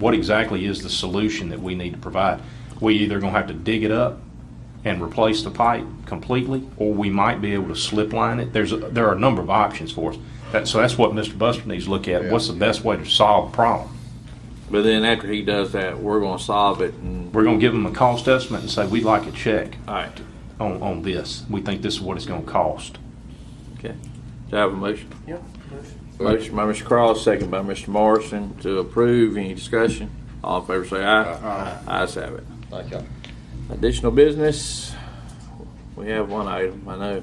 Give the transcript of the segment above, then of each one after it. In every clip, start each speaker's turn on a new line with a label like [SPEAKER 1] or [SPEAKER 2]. [SPEAKER 1] what exactly is the solution that we need to provide? We either gonna have to dig it up and replace the pipe completely, or we might be able to slip line it. There's, a- there are a number of options for us. That, so that's what Mr. Buster needs to look at. What's the best way to solve the problem?
[SPEAKER 2] But then after he does that, we're gonna solve it and,
[SPEAKER 1] We're gonna give them a cost estimate and say, we'd like a check
[SPEAKER 2] alright,
[SPEAKER 1] on, on this. We think this is what it's gonna cost.
[SPEAKER 2] okay. Do I have a motion?
[SPEAKER 3] Yep.
[SPEAKER 2] Motion by Mr. Cross, second by Mr. Morrison to approve. Any discussion? All in favor say aye. Aye. Ayes have it.
[SPEAKER 4] Thank you.
[SPEAKER 2] Additional business, we have one item, I know.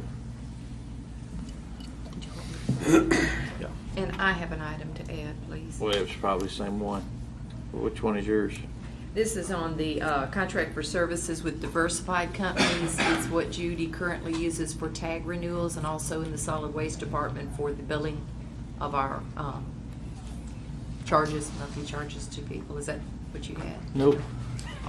[SPEAKER 5] And I have an item to add, please.
[SPEAKER 2] Well, it's probably the same one. Which one is yours?
[SPEAKER 5] This is on the uh, contract for services with diversified companies. It's what Judy currently uses for tag renewals and also in the solid waste department for the billing of our um, charges, monthly charges to people. Is that what you had?
[SPEAKER 2] Nope.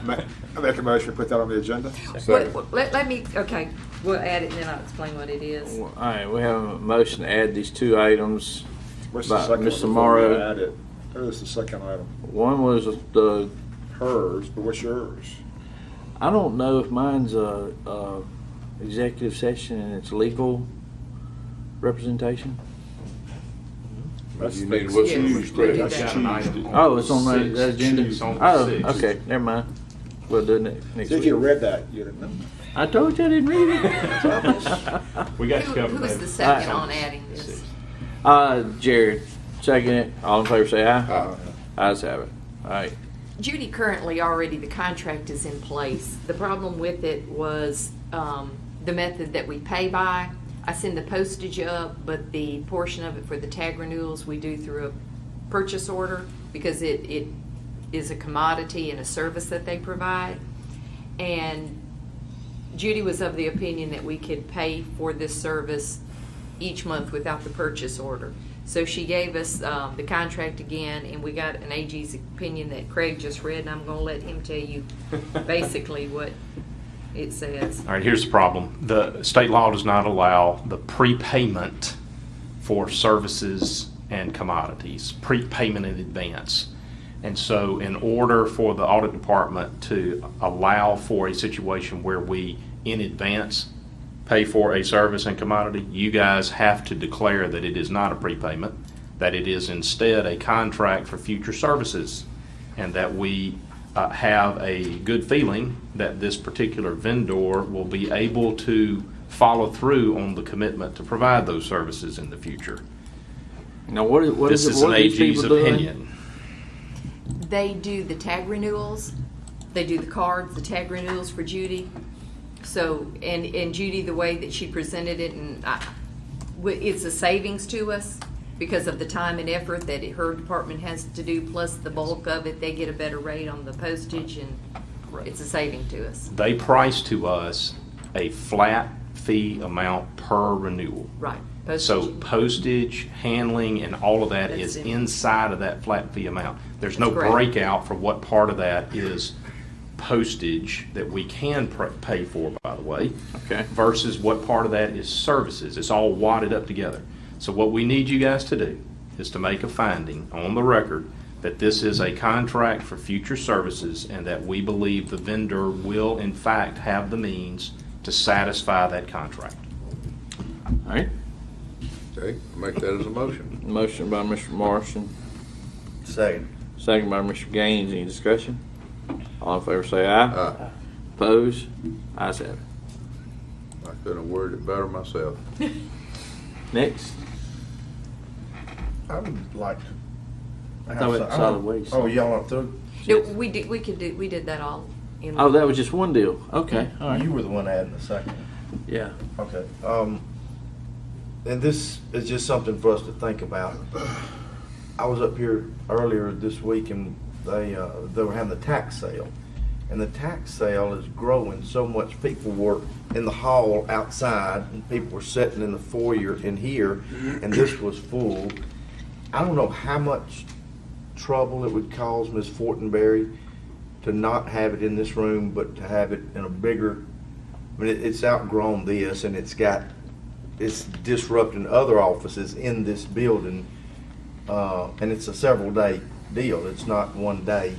[SPEAKER 6] Ma- I make a motion, to put that on the agenda.
[SPEAKER 5] Wait, wait, Let, let me, okay, we'll add it and then I'll explain what it is.
[SPEAKER 2] All right, we have a motion to add these two items.
[SPEAKER 6] What's the
[SPEAKER 2] By
[SPEAKER 6] second one
[SPEAKER 2] Ms.
[SPEAKER 6] before we
[SPEAKER 2] Amaro.
[SPEAKER 6] add it? There's the second item,
[SPEAKER 2] One was the,
[SPEAKER 6] hers, but what's yours?
[SPEAKER 2] I don't know if mine's a, a executive session and it's legal representation.
[SPEAKER 6] That's
[SPEAKER 4] You need
[SPEAKER 6] the-
[SPEAKER 4] what's
[SPEAKER 5] Yeah,
[SPEAKER 4] used,
[SPEAKER 5] we did
[SPEAKER 4] Craig.
[SPEAKER 5] that.
[SPEAKER 2] Oh, it's on the
[SPEAKER 1] Six.
[SPEAKER 2] the agenda?
[SPEAKER 1] It's on the six.
[SPEAKER 2] Oh, okay, never mind. We'll do it ne- next
[SPEAKER 6] If you
[SPEAKER 2] week.
[SPEAKER 6] read that, you'd have known.
[SPEAKER 2] I told you I didn't read it.
[SPEAKER 6] Thomas.
[SPEAKER 1] We
[SPEAKER 5] Who
[SPEAKER 1] got you covered,
[SPEAKER 5] who was
[SPEAKER 1] David.
[SPEAKER 5] the second
[SPEAKER 2] Alright.
[SPEAKER 5] on adding this?
[SPEAKER 2] Uh, Jared, second it. All in favor say aye.
[SPEAKER 4] Aye.
[SPEAKER 2] Ayes have it. All right.
[SPEAKER 5] Judy, currently already, the contract is in place. The problem with it was um, the method that we pay by. I send the postage up, but the portion of it for the tag renewals, we do through a purchase order because it, it is a commodity and a service that they provide. And Judy was of the opinion that we could pay for this service each month without the purchase order. So she gave us um, the contract again, and we got an AG's opinion that Craig just read, and I'm going to let him tell you basically what it says.
[SPEAKER 1] All right, here's the problem. The state law does not allow the prepayment for services and commodities, prepayment in advance. And so in order for the audit department to allow for a situation where we in advance pay for a service and commodity, you guys have to declare that it is not a prepayment, that it is instead a contract for future services, and that we uh, have a good feeling that this particular vendor will be able to follow through on the commitment to provide those services in the future.
[SPEAKER 2] Now, what is, what
[SPEAKER 1] This
[SPEAKER 2] is
[SPEAKER 1] is
[SPEAKER 2] it,
[SPEAKER 1] an
[SPEAKER 2] what are these
[SPEAKER 1] AG's
[SPEAKER 2] people doing?
[SPEAKER 1] opinion.
[SPEAKER 5] They do the tag renewals, they do the cards, the tag renewals for Judy. So, and, and Judy, the way that she presented it, and I, w- it's a savings to us because of the time and effort that it- her department has to do, plus the bulk of it, they get a better rate on the postage, and it's a saving to us.
[SPEAKER 1] They price to us a flat fee amount per renewal.
[SPEAKER 5] Right, postage.
[SPEAKER 1] So postage, handling, and all of that is
[SPEAKER 5] That's it.
[SPEAKER 1] inside of that flat fee amount. There's no
[SPEAKER 5] That's correct.
[SPEAKER 1] breakout for what part of that is postage that we can pr- pay for, by the way.
[SPEAKER 2] Okay.
[SPEAKER 1] Versus what part of that is services. It's all wadded up together. So what we need you guys to do is to make a finding on the record that this is a contract for future services and that we believe the vendor will in fact have the means to satisfy that contract.
[SPEAKER 2] All right.
[SPEAKER 4] Okay, make that as a motion.
[SPEAKER 2] Motion by Mr. Morrison,
[SPEAKER 4] Second.
[SPEAKER 2] second by Mr. Gaines. Any discussion? All in favor say aye.
[SPEAKER 4] I
[SPEAKER 2] Pose. Ayes have it.
[SPEAKER 4] couldn't have worded it better myself.
[SPEAKER 2] Next.
[SPEAKER 7] I would like to.
[SPEAKER 2] I thought it was solid waste.
[SPEAKER 7] Oh, y'all are through?
[SPEAKER 5] No, we did, we could do, we did that all in.
[SPEAKER 2] Oh, that was just one deal. Okay, all right.
[SPEAKER 7] You were the one adding the second.
[SPEAKER 2] Yeah.
[SPEAKER 7] Okay. Um, and this is just something for us to think about. I was up here earlier this week and they, uh, they were having the tax sale. And the tax sale is growing so much. People were in the hall outside and people were sitting in the foyer in here and this was full. I don't know how much trouble it would cause Ms. Fortenberry to not have it in this room, but to have it in a bigger, I mean, it- it's outgrown this and it's got, it's disrupting other offices in this building. Uh, and it's a several day
[SPEAKER 1] deal. It's not one day.